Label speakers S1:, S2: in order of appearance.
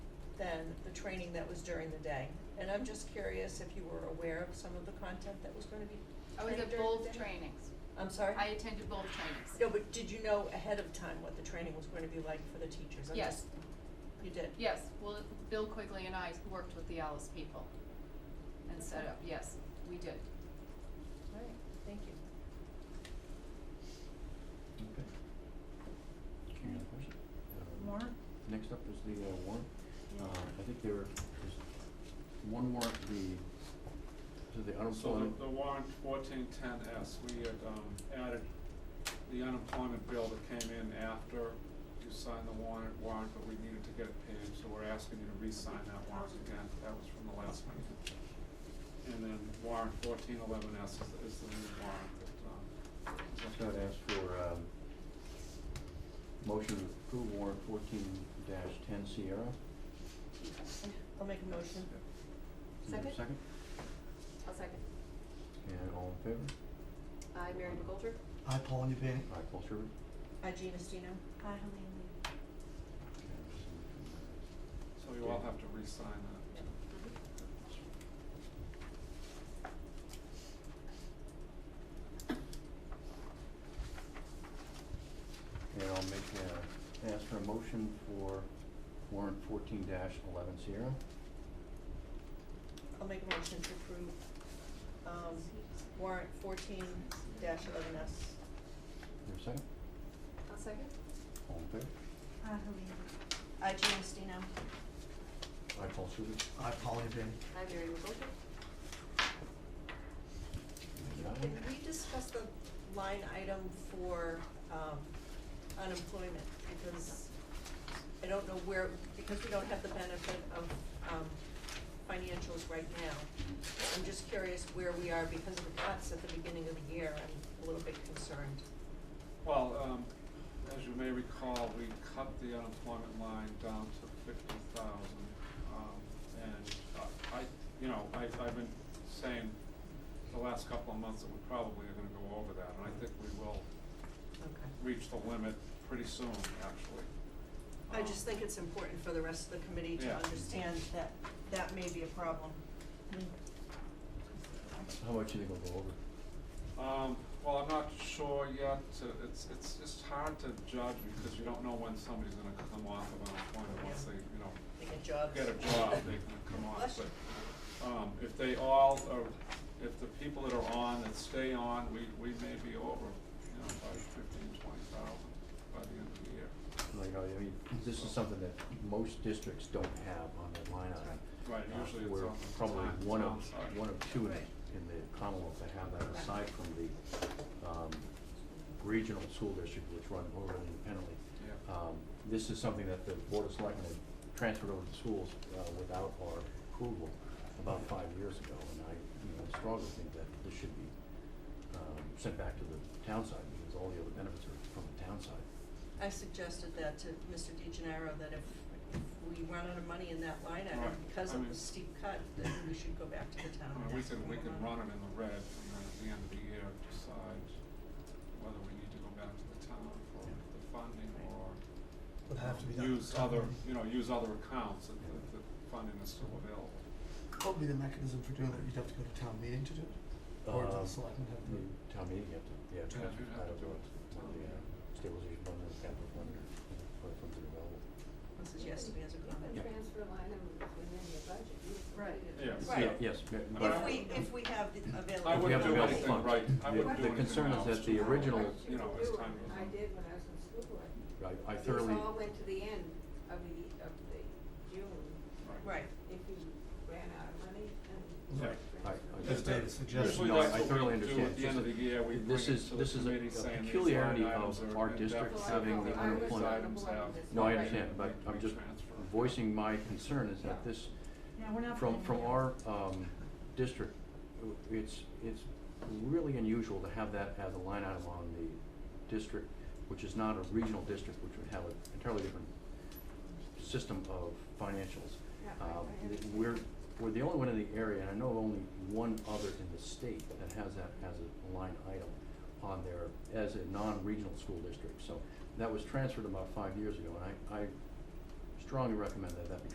S1: training that was during the day. And I'm just curious if you were aware of some of the content that was gonna be
S2: I was
S1: trained
S2: at
S1: during the
S2: both
S1: day?
S2: trainings.
S1: I'm sorry?
S2: I attended both trainings.
S1: No, but did you know ahead of time what the training was gonna be like for the teachers? I'm
S2: Yes.
S1: just- You did?
S2: Yes, well, Bill Quigley and I worked with the Alice people and set up, yes, we did.
S1: All right, thank you.
S3: Okay. Any other questions? Uh,
S4: Warrant?
S3: Next up is the uh, warrant. Uh, I think there is one warrant, the, to the
S5: So
S3: unemployment.
S5: the, the warrant fourteen ten S, we had, um, added the unemployment bill that came in after you signed the warrant, warrant, but we needed to get it paid, so we're asking you to re-sign that warrant again, that was from the last meeting. And then warrant fourteen eleven S is, is the new warrant that, um. is up
S3: So I'd
S5: there.
S3: ask for, um, motion to approve warrant fourteen dash ten Sierra.
S1: I'll make a motion.
S3: Is there a
S2: Second.
S3: Second,
S2: I'll second.
S3: and all in favor?
S2: I, Mary McGoldrick.
S4: Aye, Paul Newpany.
S3: Aye, Paul Sherwood.
S1: Hi, Gina Stino.
S6: Hi, Helene.
S5: So you all have to re-sign that.
S1: Mm-hmm.
S3: And I'll make, uh, ask for a motion for warrant fourteen dash eleven Sierra.
S1: I'll make a motion to approve, um, warrant fourteen dash eleven S.
S3: Is there a second?
S2: I'll second.
S3: All in favor?
S6: Hi, Helene.
S1: Hi, Gina Stino.
S3: Aye, Paul Sherwood.
S4: Aye, Paul Newpany.
S2: I, Mary McGoldrick.
S3: And aye.
S1: Can we discuss the line item for, um, unemployment? Because I don't know where, because we don't have the benefit of, um, financials right now. I'm just curious where we are because of the cuts at the beginning of the year. I'm a little bit concerned.
S5: Well, um, as you may recall, we cut the unemployment line down to fifty thousand. Um, and uh, I, you know, I, I've been saying the last couple of months that we probably are gonna go over that, and I think we will
S1: Okay.
S5: reach the limit pretty soon, actually.
S1: I
S5: Um,
S1: just think it's important for the rest of the committee to
S5: Yeah.
S1: understand that that may be a problem.
S3: How much do you think we'll go over?
S5: Um, well, I'm not sure yet, Uh, it's, it's, it's hard to judge because you don't know when somebody's gonna come off of unemployment, once they, you know,
S1: They get jobs.
S5: get a job, they can come on,
S1: Bless you.
S5: but, um, if they all are, if the people that are on that stay on, we, we may be over, you know, by fifteen, twenty thousand by the end of the year.
S3: Like, I mean, this is something that most districts don't have on their line item.
S5: Right,
S3: Uh,
S5: usually it's
S3: We're
S5: on the
S3: probably
S5: time-
S3: one
S5: town
S3: of,
S5: side.
S3: one of two in,
S1: Right.
S3: in the Commonwealth that have that aside from the, um, regional school district, which run over independently.
S5: Yeah.
S3: Um, this is something that the Board of Selectmen had transferred over to schools, uh, without our approval about five years ago. And I, you know, strongly think that this should be, um, sent back to the town side because all the other benefits are from the town side.
S1: I suggested that to Mr. DeGenaro, that if if we run out of money in that line item
S5: Right.
S1: because
S5: I
S1: of
S5: mean-
S1: the steep cut, then we should go back to the town.
S5: I mean,
S1: and
S5: we
S1: ask
S5: can,
S1: them
S5: we
S1: to
S5: can run it in the red, and then at the end of the year, decide whether we need to go back to the town for
S4: Yeah.
S5: the funding
S1: Right.
S5: or
S4: Would have to be done.
S5: use other, you know, use other accounts if the, if the funding is still available.
S4: What would be the mechanism for doing that? You'd have to go to town meeting to do it? Or does
S3: Um,
S4: the selectmen have the?
S3: Mm, Town meeting, you have to, yeah,
S5: Yeah,
S3: transfer,
S5: you'd
S3: I
S5: have
S3: don't
S5: to do
S3: know,
S5: it.
S3: to the uh, stabilization fund or the capital fund or, you know, where funds are available.
S1: This is yesterday as a comment.
S3: Yeah.
S7: transfer line item within your budget, you
S2: Right.
S5: Yeah.
S1: Right.
S3: Yeah, yes, yeah,
S5: I
S3: but.
S1: If we, if we have the available.
S5: I
S3: if we have
S5: wouldn't
S3: available
S5: do anything
S3: funds.
S5: right. I
S3: The-
S5: wouldn't do anything
S3: The concern is
S5: else.
S3: that the
S5: No,
S3: original,
S5: you know, as time goes
S7: I
S5: on.
S7: did when I was in school board.
S3: I, I thoroughly,
S7: These all went to the end of the, of the June,
S1: Right,
S7: if you ran out of money and.
S4: Right.
S3: I, I.
S4: As
S5: Just
S4: David
S5: that-
S4: suggested.
S5: usually
S3: No, I
S5: that's what we
S3: thoroughly
S5: do
S3: understand.
S5: At the end of the year, we bring it
S3: This
S5: to
S3: is-
S5: the
S3: this is a-
S5: committee
S3: a
S5: saying these line
S3: peculiarity
S5: items
S3: of
S5: are
S3: our
S5: in
S3: district
S5: deficit,
S3: having
S7: the
S5: these
S7: unemployment.
S5: items have-
S3: no, I
S7: Right.
S3: understand, but
S5: we-
S3: I'm
S5: we
S3: just
S5: transfer.
S3: voicing my concern is that this,
S6: Yeah, we're not.
S3: from,
S6: planning
S3: from
S6: to-
S3: our, um, district, it's, it's really unusual to have that as a line item on the district, which is not a regional district, which would have an entirely different system of financials.
S7: Yeah, I-
S3: Um,
S7: I
S3: th-
S7: understand.
S3: we're, we're the only one in the area, and I know of only one other in the state that has that as a line item on their, as a non-regional school district, so that was transferred about five years ago, and I, I strongly recommend that that be